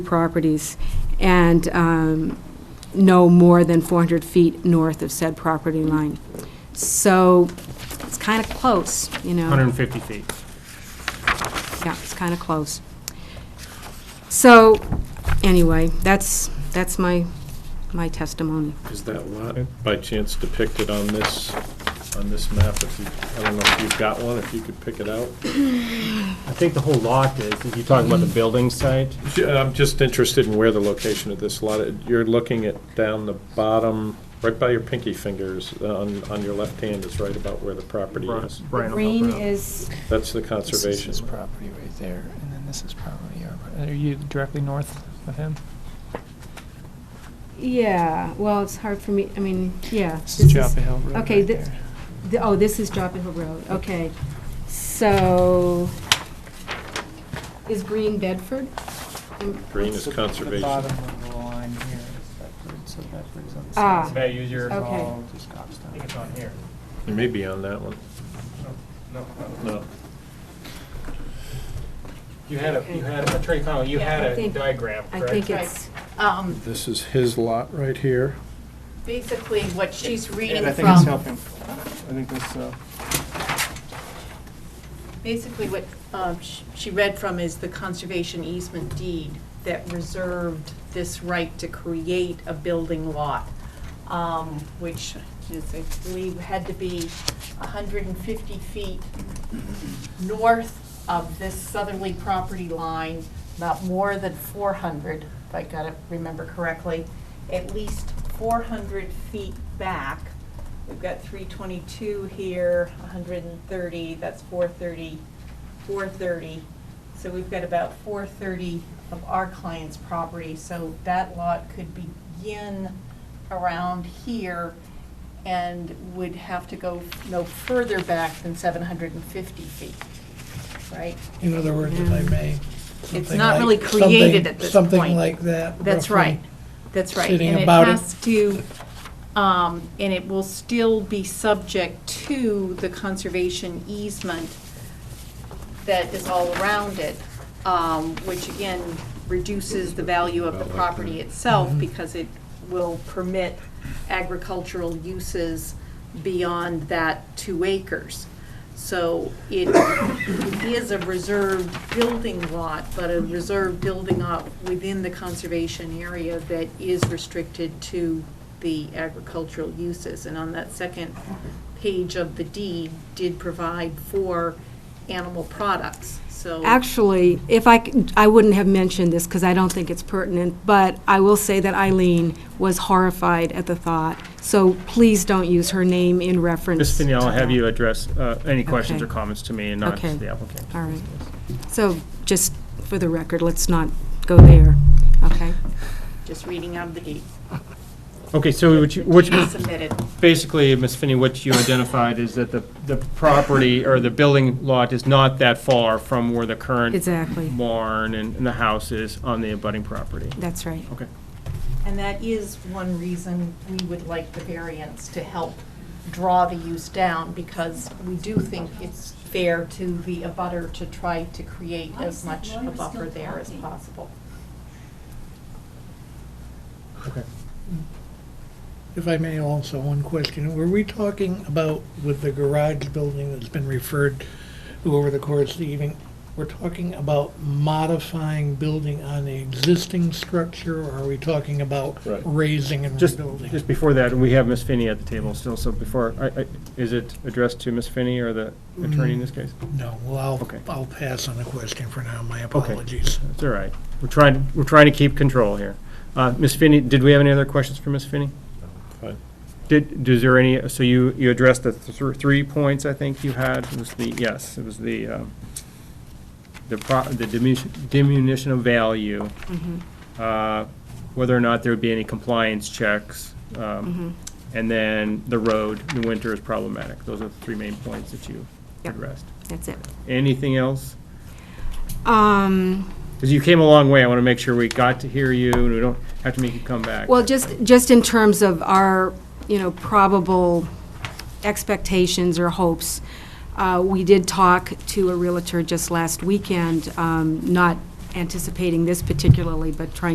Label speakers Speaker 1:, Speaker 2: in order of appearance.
Speaker 1: properties and um, no more than 400 feet north of said property line. So it's kind of close, you know?
Speaker 2: 150 feet.
Speaker 1: Yeah, it's kind of close. So, anyway, that's, that's my, my testimony.
Speaker 3: Is that lot by chance depicted on this, on this map? If you, I don't know if you've got one, if you could pick it out?
Speaker 2: I think the whole lot is, if you're talking about the building site,
Speaker 3: Yeah, I'm just interested in where the location of this lot, is. you're looking at down the bottom, right by your pinky fingers, uh, on, on your left hand is right about where the property is.
Speaker 2: Brian will help her out.
Speaker 1: is.
Speaker 3: That's the
Speaker 4: This is
Speaker 3: conservation.
Speaker 4: his property right there, and then this is probably our, pro- are you directly north of him?
Speaker 1: Yeah, well, it's hard for me, I mean, yeah.
Speaker 4: This is Joppa Hill Road
Speaker 1: okay,
Speaker 4: right
Speaker 1: thi-
Speaker 4: there.
Speaker 1: The- Oh, this is Joppa Hill Road, okay. So, is Green Bedford? Mm,
Speaker 3: Green is
Speaker 4: The
Speaker 3: conservation.
Speaker 4: bottom of the line here is Bedford, so Bedford's on the
Speaker 1: Ah,
Speaker 4: south.
Speaker 1: May
Speaker 4: side.
Speaker 1: I
Speaker 2: use your-
Speaker 4: It's
Speaker 1: Okay.
Speaker 4: all just Goffstown.
Speaker 2: here.
Speaker 3: It may be on that one. No.
Speaker 2: You had a, you had, Attorney Connell, you
Speaker 5: Yeah,
Speaker 2: had
Speaker 1: I
Speaker 2: a
Speaker 1: think-
Speaker 2: diagram,
Speaker 1: I
Speaker 2: correct?
Speaker 1: think
Speaker 5: Right.
Speaker 1: it's,
Speaker 5: Um,
Speaker 3: This is his lot right here.
Speaker 5: basically, what she's
Speaker 4: And
Speaker 5: reading
Speaker 4: I think it's
Speaker 5: from,
Speaker 4: helping, I think this, uh,
Speaker 5: basically what um, sh- she read from is the conservation easement deed that reserved this right to create a building lot, um, which is, I believe, had to be 150 feet north of this southerly property line, not more than 400, if I got it, remember correctly, at least 400 feet back. We've got 322 here, 130, that's 430, 430. So we've got about 430 of our client's property, so that lot could begin around here and would have to go no further back than 750 feet, right?
Speaker 6: In other words, if I may. something
Speaker 5: Mm. not
Speaker 6: like-
Speaker 5: really created
Speaker 6: something-
Speaker 5: at this point.
Speaker 6: Something like that.
Speaker 5: That's
Speaker 6: roughly.
Speaker 5: right, that's right.
Speaker 6: Sitting about it.
Speaker 5: And it has to, um, and it will still be subject to the conservation easement that is all around it, um, which again reduces the value of the property itself because it will permit agricultural uses beyond that two acres. So it is a reserved building lot, but a reserved building lot within the conservation area that is restricted to the agricultural uses. And on that second page of the deed, did provide for animal products, so.
Speaker 1: Actually, if I, c- I wouldn't have mentioned this because I don't think it's pertinent, but I will say that Eileen was horrified at the thought, so please don't use her name in reference.
Speaker 2: Ms. Fennell,
Speaker 1: to
Speaker 2: I'll have
Speaker 1: that.
Speaker 2: you address uh, any questions or
Speaker 1: Okay.
Speaker 2: comments to me and not
Speaker 1: Okay.
Speaker 2: to the applicant.
Speaker 1: All right. So, just for the record, let's not go there, okay?
Speaker 5: Just reading out of the deed.
Speaker 2: Okay, so what you, what you-
Speaker 5: Submitted.
Speaker 2: basically, Ms. Finney, what you identified is that the, the property or the building lot is not that far from where the current
Speaker 1: Exactly,
Speaker 2: barn and and the house is on the abutting property.
Speaker 1: that's right.
Speaker 2: Okay.
Speaker 5: And that is one reason we would like the variance to help draw the use down, because we do think it's fair to the abutter to try to create as much a buffer there as possible.
Speaker 2: Okay.
Speaker 6: If I may also, one question. Were we talking about with the garage building that's been referred to over the course of the evening? We're talking about modifying building on the existing structure, or are we talking about
Speaker 3: Right.
Speaker 6: raising and
Speaker 2: Just,
Speaker 6: rebuilding?
Speaker 2: just before that, we have Ms. Finney at the table still, so before, I- I- is it addressed to Ms. Finney or the attorney in this case?
Speaker 6: No, well, I'll,
Speaker 2: Okay.
Speaker 6: I'll pass on the question for now. My apologies.
Speaker 2: It's all right. We're trying, we're trying to keep control here. Uh, Ms. Finney, did we have any other questions for Ms. Finney?
Speaker 3: Fine.
Speaker 2: Did, is there any, so you, you addressed the thr- three points I think you had, it was the, yes, it was the, um, the pro, the diminution, diminution of value, uh, whether or not there would be any compliance checks, um, and then the road, in the winter is problematic. Those are the three main points that you
Speaker 1: Yep.
Speaker 2: addressed.
Speaker 1: That's it.
Speaker 2: Anything else?
Speaker 1: Um,
Speaker 2: Because you came a long way, I want to make sure we got to hear you, and we don't have to make you come back.
Speaker 1: Well, just, just in terms of our, you know, probable expectations or hopes, uh, we did talk to a Realtor just last weekend, um, not anticipating this particularly, but trying